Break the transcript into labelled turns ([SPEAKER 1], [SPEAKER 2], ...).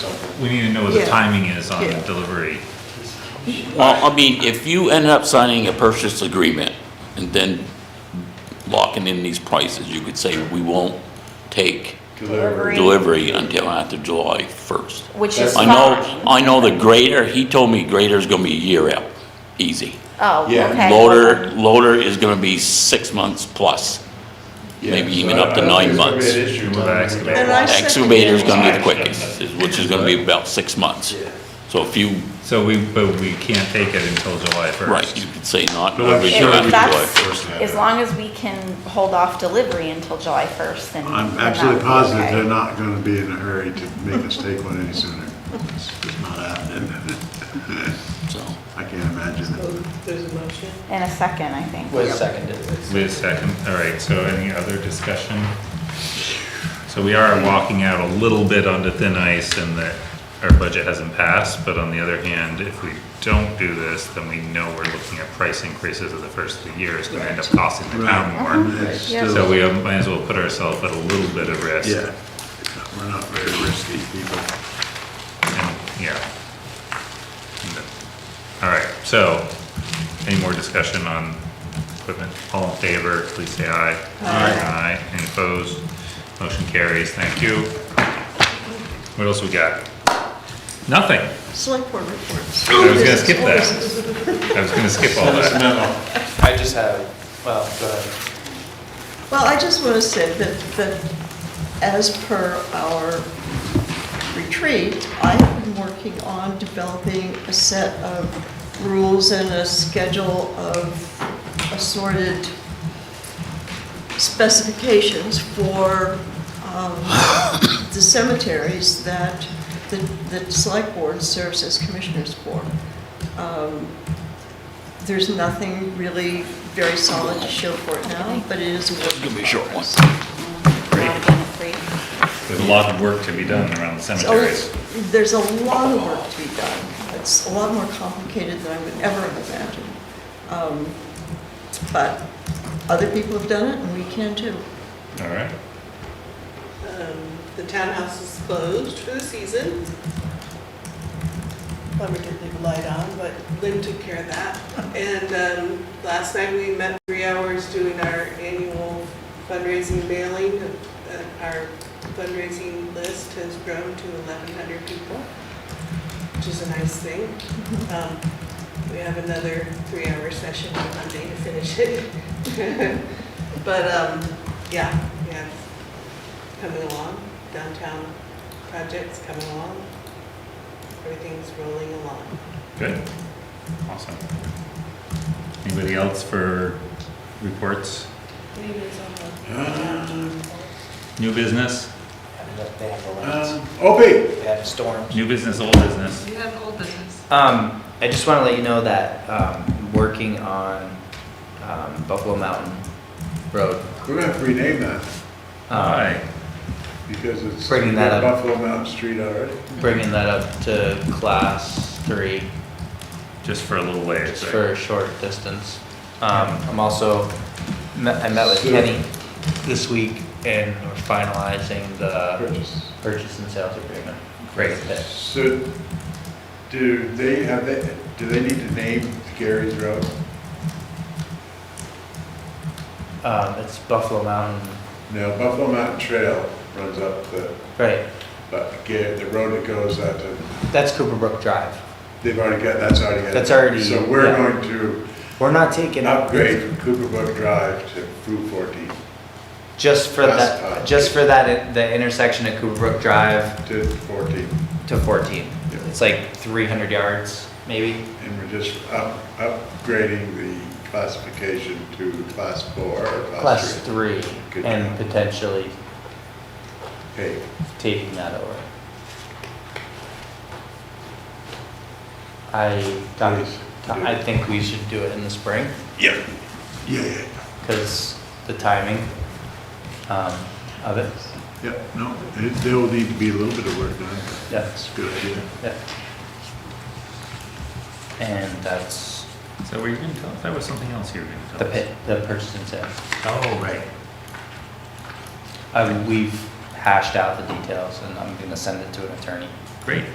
[SPEAKER 1] we need to know what the
[SPEAKER 2] Yeah.
[SPEAKER 1] timing is on
[SPEAKER 2] Yeah.
[SPEAKER 1] delivery.
[SPEAKER 3] Well, I mean, if you ended up signing a purchase agreement and then locking in these prices, you could say, we won't take
[SPEAKER 4] Delivery.
[SPEAKER 3] delivery until after July 1st.
[SPEAKER 4] Which is
[SPEAKER 3] I
[SPEAKER 4] fine.
[SPEAKER 3] know, I know the grader, he told me grader's gonna be a year out, easy.
[SPEAKER 4] Oh,
[SPEAKER 5] Yeah.
[SPEAKER 4] okay.
[SPEAKER 3] Loader, loader is gonna be six months plus.
[SPEAKER 5] Yeah,
[SPEAKER 3] Maybe
[SPEAKER 5] so
[SPEAKER 3] even
[SPEAKER 5] I- I
[SPEAKER 3] up to
[SPEAKER 5] don't think
[SPEAKER 3] nine
[SPEAKER 5] there's gonna be
[SPEAKER 3] months.
[SPEAKER 5] an issue with
[SPEAKER 1] With
[SPEAKER 5] that.
[SPEAKER 1] excavator.
[SPEAKER 2] And I second
[SPEAKER 3] Excavator's
[SPEAKER 2] that.
[SPEAKER 3] gonna be the quickest, is- which is gonna be about six months. So if you,
[SPEAKER 1] So we, but we can't take it until July first.
[SPEAKER 3] right, you could say not
[SPEAKER 1] But I'm
[SPEAKER 3] delivery
[SPEAKER 1] sure
[SPEAKER 3] till after
[SPEAKER 4] If
[SPEAKER 3] July
[SPEAKER 4] that's,
[SPEAKER 3] 1st.
[SPEAKER 4] as long as we can hold off delivery until July 1st, then.
[SPEAKER 6] I'm
[SPEAKER 4] then
[SPEAKER 6] absolutely
[SPEAKER 4] that's
[SPEAKER 6] positive
[SPEAKER 4] okay.
[SPEAKER 6] they're not gonna be in a hurry to make us take one any sooner. It's it's not happening.
[SPEAKER 3] So,
[SPEAKER 6] I can't imagine it.
[SPEAKER 2] There's a motion.
[SPEAKER 4] In a second, I think.
[SPEAKER 7] Was seconded.
[SPEAKER 1] Wait a second, all right, so any other discussion? So we are walking out a little bit onto thin ice and that our budget hasn't passed, but on the other hand, if we don't do this, then we know we're looking at price increases of the first of the year, it's gonna end up costing the town more.
[SPEAKER 6] It's
[SPEAKER 4] Yeah.
[SPEAKER 6] still-
[SPEAKER 1] So we might as well put ourselves at a little bit of risk.
[SPEAKER 6] Yeah, we're not very risky people.
[SPEAKER 1] And, yeah. All right, so, any more discussion on equipment? All in favor, please say aye. Aye. Aye, any opposed? Motion carries, thank you. What else we got? Nothing.
[SPEAKER 2] Select board reports.
[SPEAKER 1] I was gonna skip that. I was gonna skip all that.
[SPEAKER 7] I just have, well, go ahead.
[SPEAKER 2] Well, I just want to say that, that as per our retreat, I have been working on developing a set of rules and a schedule of assorted specifications for um, the cemeteries that the, the select board serves as commissioners for. Um, There's nothing really very solid to show for it now, but it is a work
[SPEAKER 3] gonna be
[SPEAKER 2] in
[SPEAKER 3] a short one.
[SPEAKER 2] progress.
[SPEAKER 4] Not being afraid.
[SPEAKER 1] There's a lot of work to be done around the
[SPEAKER 2] So
[SPEAKER 1] cemeteries.
[SPEAKER 2] There's a lot of work to be done. It's a lot more complicated than I would ever have imagined. Um, But other people have done it, and we can too.
[SPEAKER 1] All right,
[SPEAKER 8] Um, The townhouse is closed for the season. Plumber did leave a light on, but Lynn took care of that. And um, last night, we met three hours doing our annual fundraising mailing. Uh, Our fundraising list has grown to 1,100 people, which is a nice thing. Um, We have another three-hour session on Monday to finish it. But, um, yeah, we have coming along, downtown projects coming along. Everything's rolling along.
[SPEAKER 1] good, awesome. Anybody else for reports? New business?
[SPEAKER 7] They have the lights,
[SPEAKER 6] Um, Opie?
[SPEAKER 7] they have storms.
[SPEAKER 1] New business, old business?
[SPEAKER 8] You have old business.
[SPEAKER 7] Um, I just want to let you know that, um, working on, um, Buffalo Mountain Road.
[SPEAKER 6] We're gonna have to rename that
[SPEAKER 7] um,
[SPEAKER 1] Aye.
[SPEAKER 6] because it's
[SPEAKER 7] Bringing that up.
[SPEAKER 6] Buffalo Mountain Street already.
[SPEAKER 7] Bringing that up to class three.
[SPEAKER 1] Just for a little ways,
[SPEAKER 7] just
[SPEAKER 1] right?
[SPEAKER 7] for a short distance. Um, I'm also, met- I met with
[SPEAKER 6] So-
[SPEAKER 7] Kenny this week and we're finalizing the
[SPEAKER 6] Purchase.
[SPEAKER 7] purchase and sales agreement. Great fit.
[SPEAKER 6] So do they have, that? do they need to name Gary's Road?
[SPEAKER 7] Um, it's Buffalo Mountain,
[SPEAKER 6] No, Buffalo Mountain Trail runs up the,
[SPEAKER 7] right,
[SPEAKER 6] but Gary, the road that goes out to,
[SPEAKER 7] that's Cooper Brook Drive.
[SPEAKER 6] they've already got, that's already got.
[SPEAKER 7] That's already-
[SPEAKER 6] So we're
[SPEAKER 7] yeah.
[SPEAKER 6] going to
[SPEAKER 7] We're not taking up
[SPEAKER 6] upgrade from Cooper Brook Drive to Route 14
[SPEAKER 7] just for
[SPEAKER 6] That's
[SPEAKER 7] that,
[SPEAKER 6] fine.
[SPEAKER 7] just for that, the intersection of Cooper Brook Drive
[SPEAKER 6] to 14.
[SPEAKER 7] to fourteen.
[SPEAKER 6] Yeah.
[SPEAKER 7] It's like three hundred yards, maybe.
[SPEAKER 6] And we're just up, upgrading the classification to class four or
[SPEAKER 7] Class
[SPEAKER 6] class three.
[SPEAKER 7] three
[SPEAKER 6] Good
[SPEAKER 7] and
[SPEAKER 6] job.
[SPEAKER 7] potentially
[SPEAKER 6] Hey,
[SPEAKER 7] taking that over. I, Tom-
[SPEAKER 6] Please,
[SPEAKER 7] Tom,
[SPEAKER 6] do
[SPEAKER 7] I
[SPEAKER 6] it.
[SPEAKER 7] think we should do it in the spring,
[SPEAKER 6] yeah, yeah, yeah,
[SPEAKER 7] because the timing um, of it,
[SPEAKER 6] yeah, no, it- there will need to be a little bit of work done.
[SPEAKER 7] Yeah.
[SPEAKER 6] That's a good idea.
[SPEAKER 7] yeah. And that's
[SPEAKER 1] So were you gonna tell, us? that was something else you were gonna tell
[SPEAKER 7] the
[SPEAKER 1] us?
[SPEAKER 7] pit, the purchase and sale.
[SPEAKER 1] Oh, right.
[SPEAKER 7] Uh, We've hashed out the details, and I'm gonna send it to an attorney.
[SPEAKER 1] Great.